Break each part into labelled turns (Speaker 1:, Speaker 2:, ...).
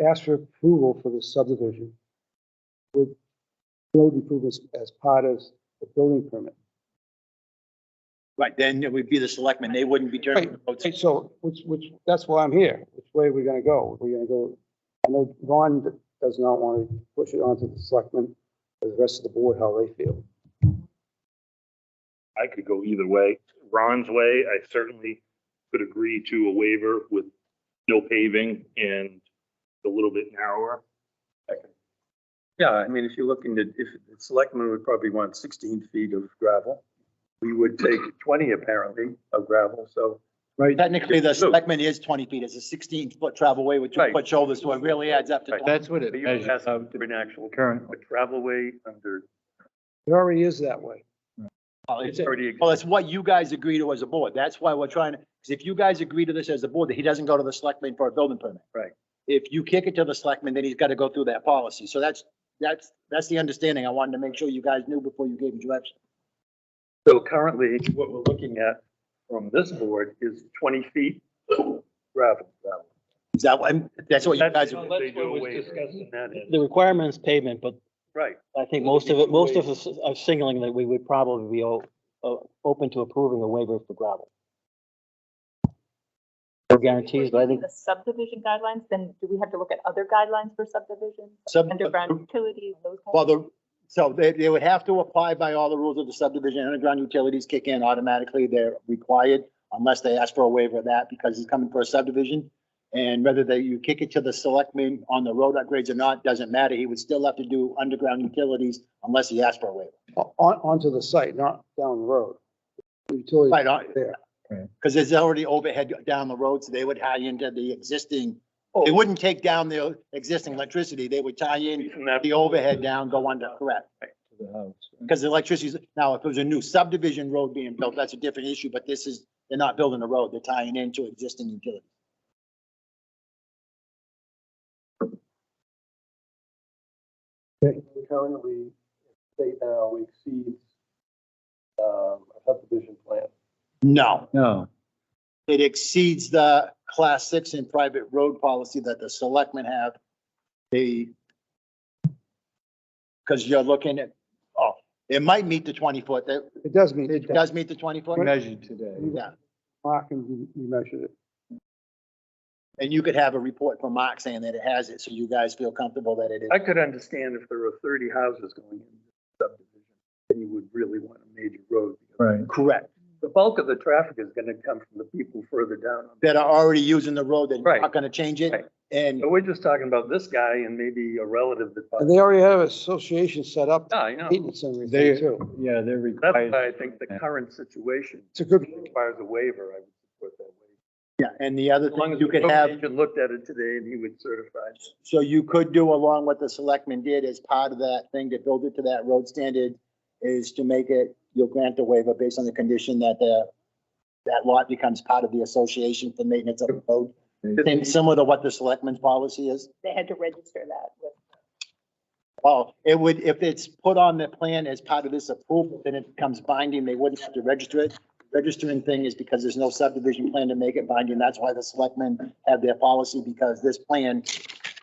Speaker 1: ask for approval for the subdivision with road improvements as part of the building permit.
Speaker 2: Right, then it would be the selectmen. They wouldn't be turning. the votes.
Speaker 1: Right, so, which, which, that's why I'm here. Which way are we gonna go? We're gonna go, I know Ron d- does not want to push it onto the selectmen, or the rest of the board, how they feel.
Speaker 3: I could go either way. Ron's way, I certainly could agree to a waiver with no paving and a little bit narrower.
Speaker 4: Yeah, I mean, if you look into, if, the selectmen would probably want sixteen feet of gravel. We would take twenty apparently of gravel, so.
Speaker 1: Right,
Speaker 2: Technically, the
Speaker 4: Look.
Speaker 2: selectman is twenty feet. It's a sixteen foot travel way with two
Speaker 4: Right.
Speaker 2: foot shoulders, so it really adds up to.
Speaker 4: Right.
Speaker 5: That's what it
Speaker 4: But you could
Speaker 5: measures
Speaker 4: ask
Speaker 5: out
Speaker 4: for an actual,
Speaker 5: currently.
Speaker 4: a travel way under,
Speaker 1: it already is that way.
Speaker 4: it's already,
Speaker 2: Well, it's what you guys agree to as a board. That's why we're trying to, because if you guys agree to this as a board, that he doesn't go to the selectmen for a building permit.
Speaker 4: Right.
Speaker 2: If you kick it to the selectmen, then he's got to go through that policy. So that's, that's, that's the understanding. I wanted to make sure you guys knew before you gave direction.
Speaker 4: so currently, what we're looking at from this board is twenty feet gravel. gravel.
Speaker 2: Is that, what- and that's what you
Speaker 4: That's-
Speaker 2: guys,
Speaker 3: If
Speaker 6: that's
Speaker 3: they do
Speaker 6: what
Speaker 3: a
Speaker 6: was
Speaker 3: waiver.
Speaker 6: discussed.
Speaker 4: That is,
Speaker 6: The requirement is pavement, but
Speaker 4: right,
Speaker 6: I think most of it, most of us are signaling that we would probably be o- o- open to approving a waiver for gravel. No guarantees, but I think
Speaker 7: The subdivision guidelines, then do we have to look at other guidelines for subdivisions,
Speaker 2: Sub-
Speaker 7: underground utilities, those kinds
Speaker 2: well,
Speaker 7: of?
Speaker 2: the, so they, they would have to apply by all the rules of the subdivision. Underground utilities kick in automatically. They're required unless they ask for a waiver of that because he's coming for a subdivision. And whether they, you kick it to the selectmen on the road upgrades or not, doesn't matter. He would still have to do underground utilities unless he asks for a waiver.
Speaker 1: On, onto the site, not down the road. Utility.
Speaker 2: Right, on,
Speaker 1: There.
Speaker 2: because uh, there's already overhead down the road, so they would tie into the existing, they wouldn't take down the existing electricity. They would tie in
Speaker 4: and that,
Speaker 2: the overhead down, go under, correct?
Speaker 5: to the house.
Speaker 2: Because the electricity's, now, if it was a new subdivision road being built, that's a different issue, but this is, they're not building a road, they're tying into existing utilities.
Speaker 8: currently, state now exceeds, um, a subdivision plan.
Speaker 2: No,
Speaker 5: No,
Speaker 2: it exceeds the class six and private road policy that the selectmen have. The, because you're looking at, oh, it might meet the twenty foot, that,
Speaker 1: It does mean.
Speaker 2: it does meet the twenty foot.
Speaker 5: measured today.
Speaker 2: Yeah,
Speaker 1: Mark and you you measured it.
Speaker 2: and you could have a report from Mark saying that it has it, so you guys feel comfortable that it is.
Speaker 4: I could understand if there were thirty houses going in subdivision, then you would really want a major road.
Speaker 5: Right.
Speaker 2: Correct.
Speaker 4: The bulk of the traffic is gonna come from the people further down. on the-
Speaker 2: That are already using the road, that are not
Speaker 4: Right.
Speaker 2: gonna change
Speaker 4: Right.
Speaker 2: it, and
Speaker 4: But we're just talking about this guy and maybe a relative that.
Speaker 1: And they already have an association set up,
Speaker 4: Yeah, I know.
Speaker 1: maintenance and everything
Speaker 5: They-
Speaker 1: too.
Speaker 5: Yeah, they're
Speaker 4: That's
Speaker 5: required.
Speaker 4: why I think the current situation
Speaker 1: It's a good,
Speaker 4: requires a waiver. I would support that waiver.
Speaker 2: Yeah, and the other
Speaker 4: As long
Speaker 2: thing
Speaker 4: as
Speaker 2: you
Speaker 4: the
Speaker 2: could
Speaker 4: road
Speaker 2: have,
Speaker 4: agent looked at it today and he would certify.
Speaker 2: so you could do along what the selectmen did as part of that thing to build it to that road standard is to make it, you'll grant the waiver based on the condition that the, that lot becomes part of the association for maintenance of the road. And similar to what the selectmen's policy is.
Speaker 7: They had to register that with.
Speaker 2: Oh, it would, if it's put on the plan as part of this approval, then it becomes binding. They wouldn't have to register it. Registering thing is because there's no subdivision plan to make it binding. That's why the selectmen have their policy because this plan,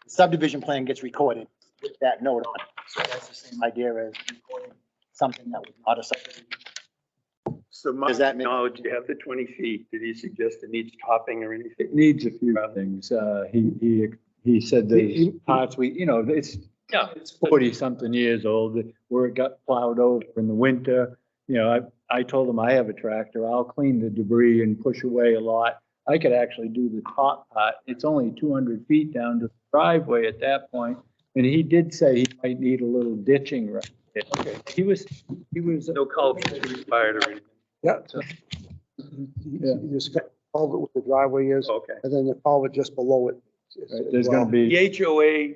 Speaker 2: subdivision plan gets recorded with that note on it. So that's the same idea as recording something that was not a subdivision.
Speaker 4: So my
Speaker 2: Does that make-
Speaker 4: knowledge, you have the twenty feet. Did he suggest it needs topping or anything?
Speaker 5: It needs a few things. Uh, he, he, he said
Speaker 1: He-
Speaker 5: there's
Speaker 1: he-
Speaker 5: parts we, you know, it's,
Speaker 4: Yeah.
Speaker 5: it's forty something years old where it got plowed over in the winter. You know, I, I told him I have a tractor. I'll clean the debris and push away a lot. I could actually do the top part. It's only two hundred feet down to the driveway at that point. And he did say he might need a little ditching right there. Okay. He was, he was.
Speaker 4: No culvert required or anything.
Speaker 1: yeah. so you- You just got culvert with the driveway is,
Speaker 4: Okay.
Speaker 1: and then the culvert just below it.
Speaker 5: Oh. Right, There's gonna be,
Speaker 4: The HOA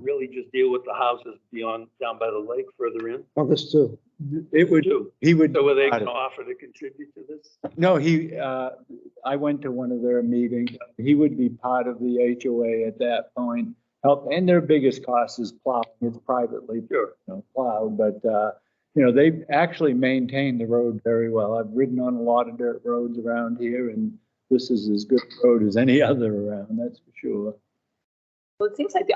Speaker 4: really just deal with the houses beyond, down by the lake further in.
Speaker 1: On this too.
Speaker 5: it would,
Speaker 4: too.
Speaker 5: he would,
Speaker 4: So were they gonna offer to contribute to this?
Speaker 5: no, he, uh, I went to one of their meetings. He would be part of the HOA at that point. Help, and their biggest cost is plowing. It's privately, you
Speaker 4: Sure.
Speaker 5: know, plowed, but, uh, you know, they've actually maintained the road very well. I've ridden on a lot of dirt roads around here and this is as good a road as any other around, that's for sure.
Speaker 7: Well, it seems like the